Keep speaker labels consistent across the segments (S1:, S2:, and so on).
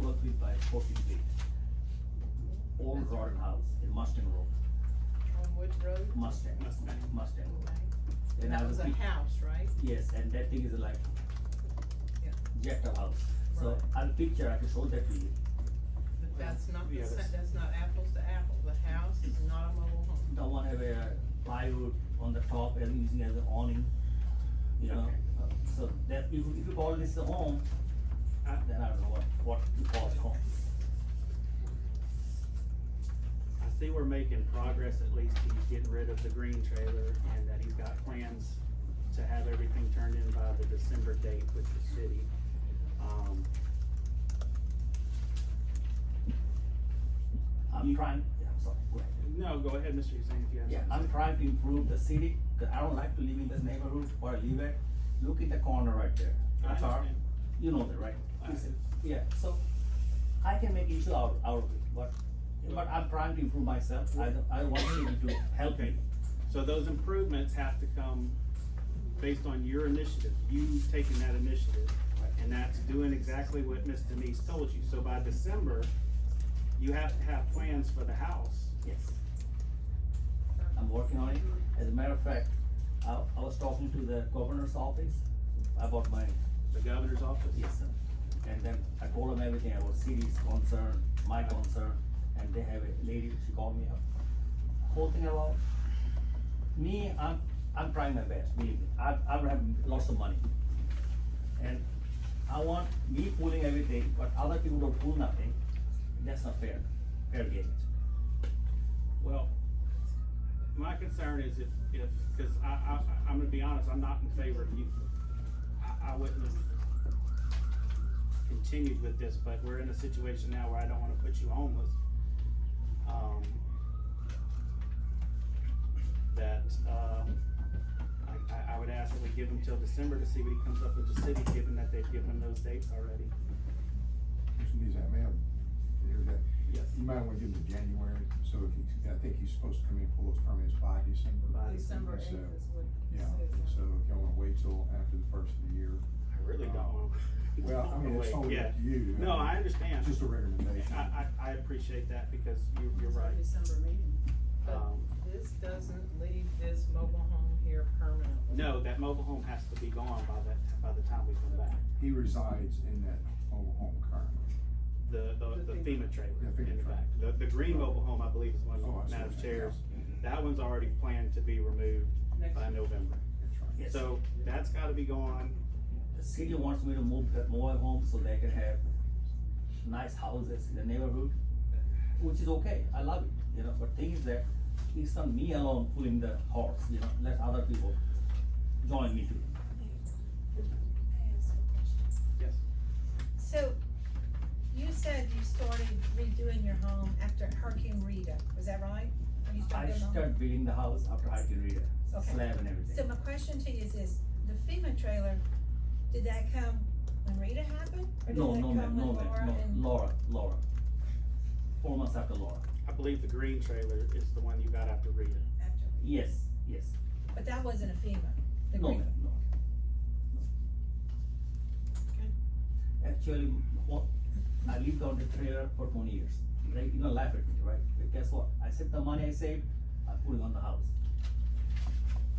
S1: four feet by four feet deep. Old rotten house in Mustang Road,
S2: On Wood Road?
S1: Mustang, Mustang Road.
S2: Okay.
S1: Then
S2: And that
S1: I
S2: was a
S1: repeat-
S2: house, right?
S1: Yes, and that thing is like
S2: Yeah.
S1: jet of house. So
S2: Right.
S1: I'll picture, I can show that to you.
S2: But that's not, the
S3: Yeah,
S2: sa-
S3: that's-
S2: that's not apples to apples, the house is not a mobile home.
S1: The one have a plywood on the top and using as an awning, you know?
S3: Okay.
S1: Uh, So that, if, if you call this a home,
S3: Uh,
S1: then I don't know what, what you call it home.
S3: I see we're making progress, at least he's getting rid of the green trailer and that he's got plans to have everything turned in by the December date with the city. Um,
S1: I'm trying, yeah, I'm sorry, go ahead.
S3: no, go ahead, Mr. Hussein, if you have
S1: Yeah,
S3: something.
S1: I'm trying to improve the city, 'cause I don't like to live in this neighborhood where I live at. Look at the corner right there.
S3: I
S1: That's our-
S3: understand.
S1: You know that, right?
S3: I
S1: It's-
S3: do.
S1: Yeah, so I can make issue out, out of it, but, but I'm trying to improve myself. I, don't- I want city to help me.
S3: So those improvements have to come based on your initiative, you taking that initiative.
S1: Right.
S3: And that's doing exactly what Ms. Denise told you. So by December, you have to have plans for the house.
S1: Yes. I'm working on it. As a matter of fact, I, I was talking to the governor's office about my,
S3: The governor's office?
S1: yes, sir. And then I told them everything about city's concern, my concern, and they have a lady, she called me up. Whole thing about me, I'm, I'm trying my best, believe me. I, I have lots of money. And I want me pulling everything, but other people don't pull nothing. That's not fair, fair game.
S3: Well, my concern is if, if, cause I, I, I'm gonna be honest, I'm not in favor of you. I, I wouldn't have continued with this, but we're in a situation now where I don't wanna put you homeless. Um, that, um, I, I, I would ask that we give him till December to see what he comes up with the city, given that they've given him those dates already.
S4: Mr. Nizam, ma'am, you hear that?
S3: Yes.
S4: You might wanna give him to January, so if he, I think he's supposed to come in, and pull those permits by December.
S3: By
S2: December
S4: So,
S2: eighth is what it
S4: Yeah,
S2: says on
S4: so if y'all wanna wait till after the first of the year,
S3: I really don't want.
S4: well, I mean, it's totally up to you.
S3: No, I understand.
S4: It's just a recommendation.
S3: I, I, I appreciate that because you, you're right.
S5: December meeting.
S2: But
S3: Um,
S2: this doesn't leave this mobile home here permanently.
S3: no, that mobile home has to be gone by that, by the time we come back.
S4: He resides in that mobile home currently.
S3: The, the, the
S2: The
S3: FEMA trailer
S4: Yeah, FEMA
S3: in the
S4: trailer.
S3: back. The, the green mobile home, I believe, is one
S4: Oh, I
S3: of
S4: see
S3: Madam
S4: what you're
S3: Chair's.
S4: saying.
S3: That one's already planned to be removed
S2: Next
S3: by
S2: year.
S3: November.
S4: That's right.
S1: Yes.
S3: So that's gotta be gone.
S1: The city wants me to move that mobile home so they can have nice houses in the neighborhood, which is okay, I love it, you know, but thing is that it's not me alone pulling the horse, you know, let other people join me too.
S6: I have some questions.
S3: Yes.
S6: So, you said you started redoing your home after Hurricane Rita, was that right? When you
S1: I
S6: started your home?
S1: start building the house after I can read it,
S6: Okay.
S1: slab and
S6: So
S1: everything.
S6: my question to you is this, the FEMA trailer, did that come when Rita happened? Or did
S1: No,
S6: that
S1: no, ma'am,
S6: come
S1: no,
S6: when Laura
S1: ma'am,
S6: and-
S1: no, Laura, Laura. Four months after Laura,
S3: I believe the green trailer is the one you got after Rita.
S6: after Rita?
S1: yes, yes,
S6: But that wasn't a FEMA, the
S1: no,
S6: green,
S1: ma'am, no. no. Actually, what, I lived on the trailer for twenty years, like, you know, life at me, right? But guess what? I saved the money I saved, I put it on the house.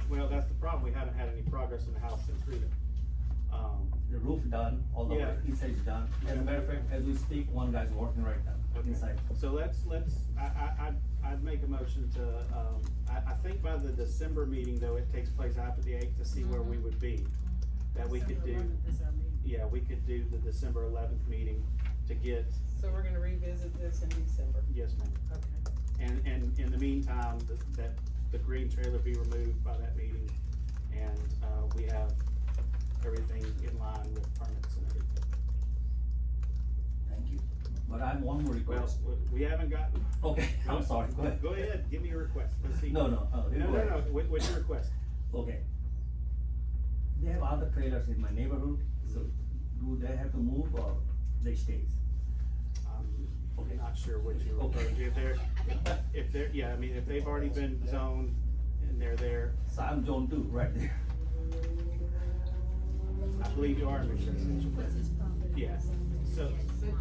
S3: Well, that's the problem. We haven't had any progress in the house since Rita. Um,
S1: The roof done, all the
S3: Yeah.
S1: work inside is done. As a matter of fact, as we speak, one guy's working right now,
S3: Okay.
S1: inside.
S3: So let's, let's, I, I, I'd, I'd make a motion to, um, I, I think by the December meeting, though, it takes place after the eighth to see where we would be. That we could do,
S5: December 11th is our meeting.
S3: yeah, we could do the December eleventh meeting to get,
S2: So we're gonna revisit this in December,
S3: yes, ma'am.
S2: okay.
S3: And, and in the meantime, the- that, the green trailer be removed by that meeting, and, uh, we have everything in line with permits and everything.
S1: Thank you. But I have one more
S3: Well,
S1: request.
S3: we- we haven't got.
S1: Okay, I'm sorry, go ahead.
S3: Go ahead, give me your request, let's see.
S1: No, no, oh, you
S3: No,
S1: go
S3: no,
S1: ahead.
S3: no, what, what's your request?
S1: Okay. They have other trailers in my neighborhood, so do they have to move or they stays? Okay.
S3: Um, I'm not sure what you're
S1: Okay.
S3: referring to, if they're, if they're, yeah, I mean, if they've already been zoned and they're there,
S1: So I'm zone two right there.
S3: I believe you are in a residential.
S5: What's his property?
S3: Yeah, so,